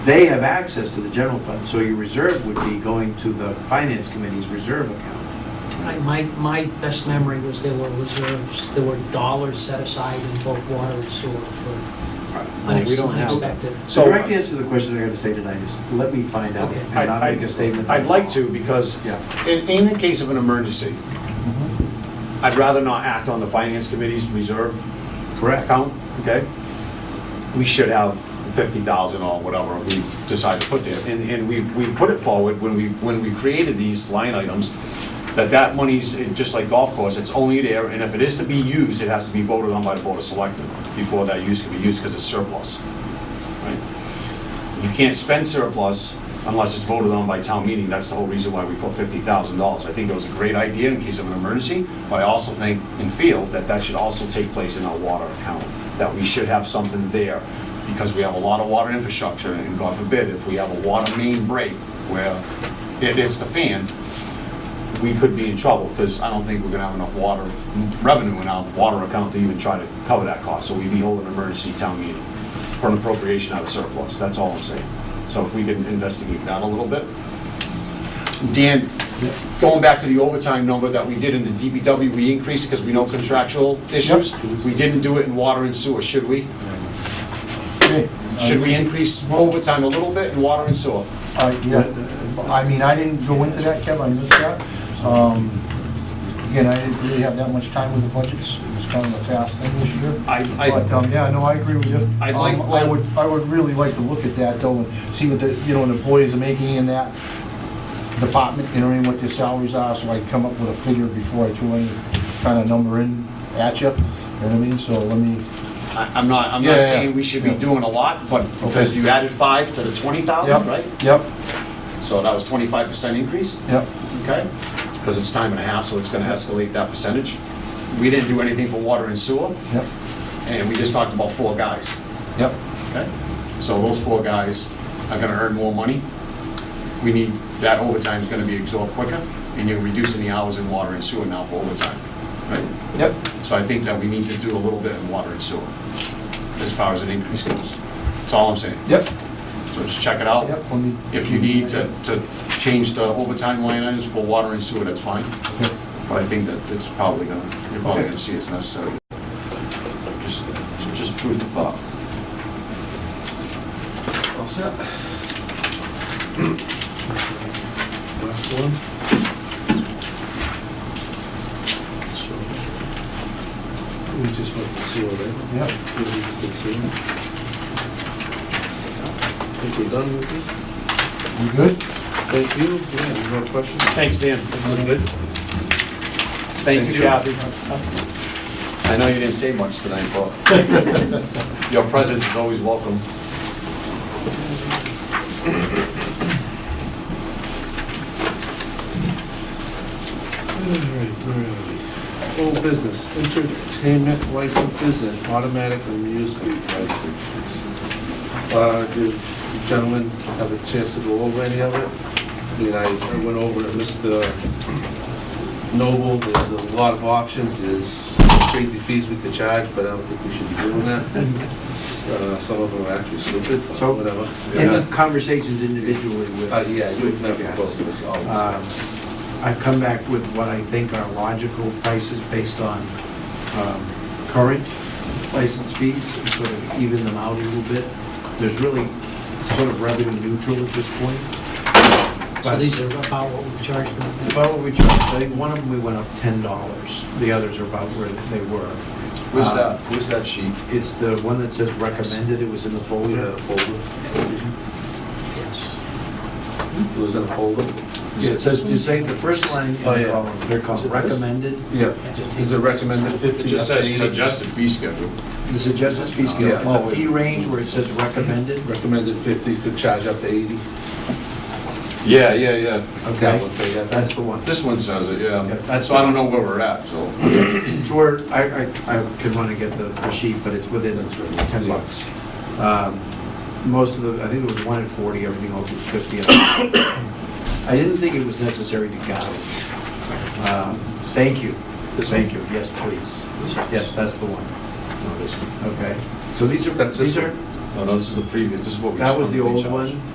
They have access to the general fund, so your reserve would be going to the finance committee's reserve account. I- My, my best memory was there were reserves, there were dollars set aside in both water and sewer for Well, we don't have that. unexpected. So So- the direct answer to the question I gotta say tonight is, let me find out Okay. and not I- make a statement. I- I'd like to, because Yeah. Mm-hmm. in, in the case of an emergency, I'd rather not act on the finance committee's reserve Correct. account, okay? We should have fifty thousand or whatever we decide to put there, and, and we, we put it forward when we, when we created these line items, that that money's, eh, just like golf course, it's only there, and if it is to be used, it has to be voted on by the board of selectmen before that use can be used, because it's surplus. right? You can't spend surplus unless it's voted on by town meeting, that's the whole reason why we put fifty thousand dollars. I think it was a great idea in case of an emergency, but I also think and feel that that should also take place in our water account, that we should have something there, because we have a lot of water infrastructure, and God forbid, if we have a water main break where it hits the fan, we could be in trouble, because I don't think we're gonna have enough water, revenue in our water account to even try to cover that cost, so we'd be holding an emergency town meeting for an appropriation out of surplus, that's all I'm saying. So if we can investigate that a little bit. Dan, going back to the overtime number that we did in the DBW, we increased because we know contractual issues. We didn't do it in water and sewer, should we? Should we increase overtime a little bit in water and sewer? Uh, yeah, I mean, I didn't go into that, Kev, I missed that. Um, Again, I didn't really have that much time with the budgets, it was kind of a fast thing this year. I, But, I, um, yeah, no, I agree with you. I'd like- Um, I would, I would really like to look at that though, and see what the, you know, the employees are making in that department, you know, and what their salaries are, so I can come up with a figure before I throw any kind of number in at you, you know what I mean? So let me, I- I'm not, I'm not Yeah, yeah, saying we should be yeah. doing a lot, but because Okay. you added five to the twenty thousand, right? yep, yep, So that was twenty-five percent increase? yep. okay? Because it's time and a half, so it's gonna escalate that percentage. We didn't do anything for water and sewer, Yep, and we just talked about four guys, yep, okay? So those four guys are gonna earn more money. We need, that overtime's gonna be absorbed quicker, and you're reducing the hours in water and sewer now for overtime, right? yep. So I think that we need to do a little bit in water and sewer, as far as an increase goes. That's all I'm saying. Yep, So just check it out. yep, let me. If you need to, to change the overtime line items for water and sewer, that's fine. Okay. But I think that it's probably gonna, you're probably gonna see it's necessary. Just, just food for thought. All set. Last one. So, we just went to sewer, right? Yep. We just did sewer. I think we're done with this. You good? Thank you. Yeah, any more questions? Thanks, Dan. Everyone good? Thank you, Kathy. I know you didn't say much tonight, but your presence is always welcome. All right, where are we? Old business, entertainment licenses and automatic amusement licenses. Uh, did the gentlemen have a chance to go over any of it? You know, I went over to Mr. Noble, there's a lot of options, there's crazy fees we could charge, but I don't think we should be doing that. Uh, some of them are actually stupid, but So- whatever. In conversations individually with. Uh, yeah, you would never with both of us always. Um, I've come back with what I think are logical prices based on um, current license fees, and sort of even them out a little bit. There's really sort of revenue neutral at this point. So But- these are about what we charged them. About what we charged, I think one of them we went up ten dollars, the others are about where they were. Where's Uh, that, where's that sheet? It's the one that says recommended, it was in the We folder. had a folder. It was in a folder? It says, you say the first line in Oh, yeah. the column, they're called recommended. Yeah, is it recommended It fifty? just up to says 80? suggested fee schedule. The suggested fee Yeah. scale, in the fee range where it says recommended, Recommended fifty, could charge up to eighty. Yeah, yeah, yeah. Okay. That would say that. that's the one. This one says it, Yeah, yeah. that's- So I don't know where we're at, so. It's where, I, I, I could wanna get the the sheet, but it's within ten Yeah. bucks. Um, Most of the, I think it was one at forty, everything else was fifty. I didn't think it was necessary to gouge. Um, Thank you, thank you, yes, please. Yes, that's the one, No, this one. okay. So these are, That's this these are, No, no, this is the previous, this is what we. That was the what we old charged. one?